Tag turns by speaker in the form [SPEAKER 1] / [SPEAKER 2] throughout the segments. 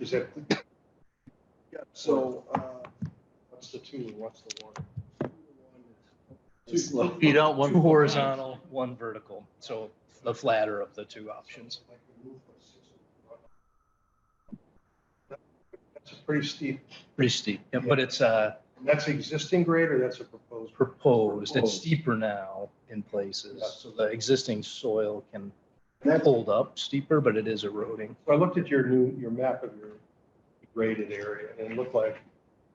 [SPEAKER 1] Is that,
[SPEAKER 2] Yeah, So, uh,
[SPEAKER 1] what's the two and what's the one?
[SPEAKER 2] Too slow.
[SPEAKER 3] You don't, one
[SPEAKER 2] Two
[SPEAKER 3] horizontal, one vertical. So the flatter of the two options.
[SPEAKER 1] That's a pretty steep,
[SPEAKER 3] Pretty steep, Yeah, but it's uh,
[SPEAKER 1] and that's existing grade or that's a proposed?
[SPEAKER 3] proposed, it's
[SPEAKER 2] Proposed.
[SPEAKER 3] steeper now in places.
[SPEAKER 1] Yeah.
[SPEAKER 3] So the existing soil can
[SPEAKER 2] that,
[SPEAKER 3] hold up steeper, but it is eroding.
[SPEAKER 1] So I looked at your new, your map of your graded area and it looked like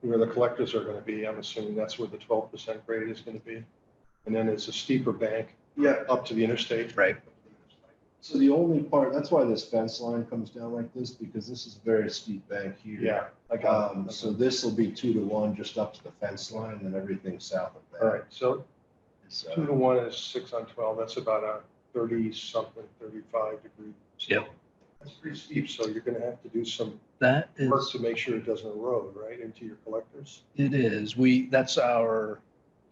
[SPEAKER 1] where the collectors are gonna be, I'm assuming that's where the twelve percent grade is gonna be. And then it's a steeper bank
[SPEAKER 2] yeah,
[SPEAKER 1] up to the interstate.
[SPEAKER 3] Right.
[SPEAKER 2] so the only part, that's why this fence line comes down like this, because this is a very steep bank here.
[SPEAKER 1] Yeah. I got it.
[SPEAKER 2] Um, so this will be two to one just up to the fence line and everything south of
[SPEAKER 1] All
[SPEAKER 2] that. uh,
[SPEAKER 1] right, so two
[SPEAKER 2] So,
[SPEAKER 1] to one is six on twelve, that's about a thirty-something, thirty-five degree.
[SPEAKER 3] Yep.
[SPEAKER 1] That's pretty steep, so you're gonna have to do some
[SPEAKER 3] That
[SPEAKER 1] work
[SPEAKER 3] is,
[SPEAKER 1] to make sure it doesn't erode, right, into your collectors?
[SPEAKER 3] it is, we, that's our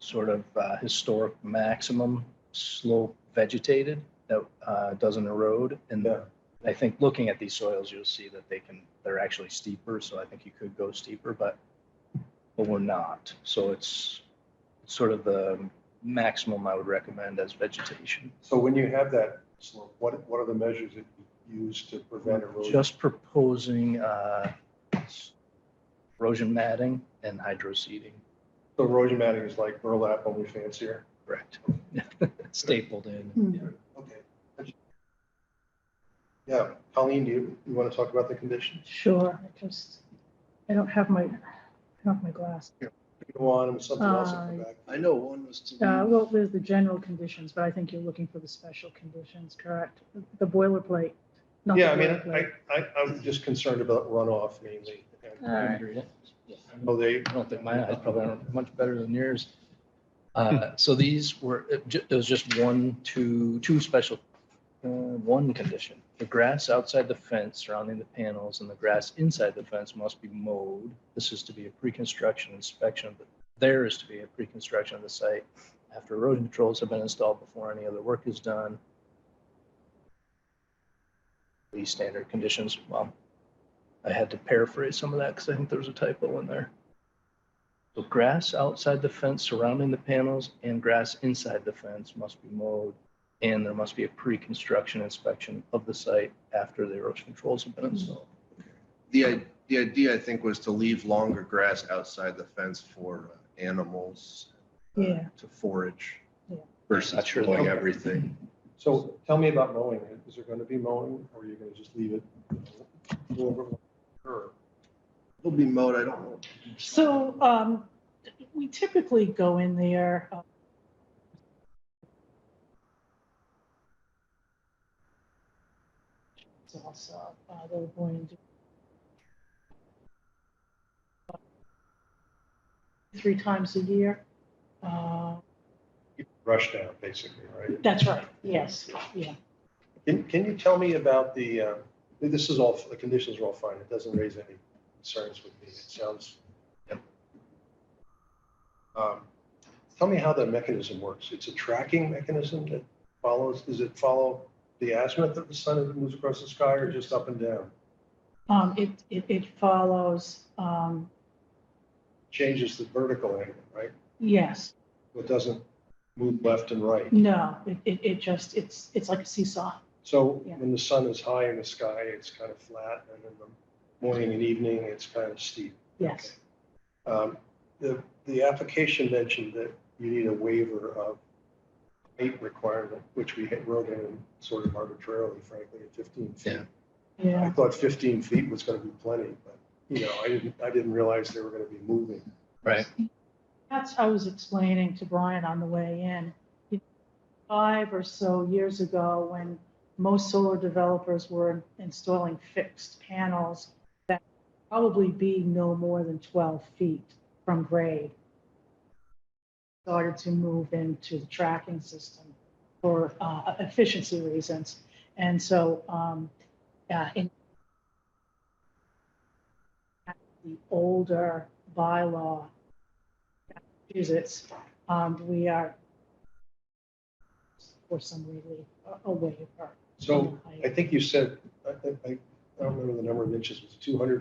[SPEAKER 3] sort of uh, historic maximum slope vegetated that uh, doesn't erode. And
[SPEAKER 1] Yeah.
[SPEAKER 3] I think looking at these soils, you'll see that they can, they're actually steeper, so I think you could go steeper, but, but we're not. So it's sort of the maximum I would recommend as vegetation.
[SPEAKER 1] So when you have that slope, what, what are the measures that you use to prevent erosion?
[SPEAKER 3] Just proposing uh, erosion matting and hydro seeding,
[SPEAKER 1] So erosion matting is like burlap, only fancier.
[SPEAKER 3] correct? Stapled
[SPEAKER 1] Hmm.
[SPEAKER 3] in. yeah.
[SPEAKER 1] Okay. Yeah, Colleen, do you, you want to talk about the conditions?
[SPEAKER 4] Sure, I just, I don't have my, I don't have my glass.
[SPEAKER 1] Go on, and something else will come
[SPEAKER 4] Uh,
[SPEAKER 1] back.
[SPEAKER 2] I know one was
[SPEAKER 1] Mm-hmm.
[SPEAKER 2] to.
[SPEAKER 4] Uh, Well, there's the general conditions, but I think you're looking for the special conditions, correct? The boilerplate. not the
[SPEAKER 1] Yeah, I mean, I,
[SPEAKER 4] boilerplate.
[SPEAKER 1] I, I'm just concerned about runoff mainly. and-
[SPEAKER 4] All right.
[SPEAKER 1] Oh, they,
[SPEAKER 3] I don't think my eyes probably aren't much better than yours.
[SPEAKER 4] Hmm.
[SPEAKER 3] Uh, So these were, it ju- there was just one, two, two special, uh, one condition. The grass outside the fence surrounding the panels and the grass inside the fence must be mowed. This is to be a pre-construction inspection, of the there is to be a pre-construction of the site after erosion controls have been installed before any other work is done. These standard conditions, well, I had to paraphrase some of that because I think there was a typo in there. So grass outside the fence surrounding the panels and grass inside the fence must be mowed. And there must be a pre-construction inspection of the site after the erosion controls have been installed.
[SPEAKER 5] The, i- the idea, I think, was to leave longer grass outside the fence for uh, animals. uh,
[SPEAKER 4] Yeah.
[SPEAKER 5] To forage
[SPEAKER 4] Yeah.
[SPEAKER 5] versus
[SPEAKER 3] Not sure.
[SPEAKER 5] doing everything.
[SPEAKER 1] so tell me about mowing. Is there going to be mowing or are you going to just leave it? go over- Or
[SPEAKER 5] It'll be mowed, I don't know.
[SPEAKER 4] So um, we typically go in there. uh, it's Also, uh, they were going to do three times a year. Uh,
[SPEAKER 1] Rush down, basically, right?
[SPEAKER 4] That's right, yes, yeah.
[SPEAKER 1] Can, can you tell me about the, uh, this is all, the conditions are all fine. It doesn't raise any concerns with me. It sounds. Um, Tell me how the mechanism works. It's a tracking mechanism that follows, does it follow the azimuth of the sun as it moves across the sky or just up and down?
[SPEAKER 4] Um, it, it, it follows, um,
[SPEAKER 1] Changes the vertical angle, right?
[SPEAKER 4] yes,
[SPEAKER 1] It doesn't move left and right.
[SPEAKER 4] no, it, it, it just, it's, it's like a seesaw.
[SPEAKER 1] So
[SPEAKER 4] Yeah.
[SPEAKER 1] when the sun is high in the sky, it's kind of flat and in the morning and evening, it's kind of steep.
[SPEAKER 4] Yes,
[SPEAKER 1] Um, The, the application mentioned that you need a waiver of height requirement, which we had wrote in sort of arbitrarily, frankly, at 15 feet.
[SPEAKER 5] Yeah.
[SPEAKER 1] I
[SPEAKER 4] yeah,
[SPEAKER 1] thought 15 feet was going to be plenty, but, you know, I didn't, I didn't realize they were going to be moving.
[SPEAKER 3] Right.
[SPEAKER 4] that's, I was explaining to Brian on the way in. You know, Five or so years ago, when most solar developers were installing fixed panels that probably be no more than twelve feet from grade. Started to move into the tracking system for uh, efficiency reasons. And so, um, uh, in the older bylaw, Massachusetts, um, we are for some relief, a- a waiver.
[SPEAKER 1] So I think you said, I, I- I don't remember the number of inches, was it 200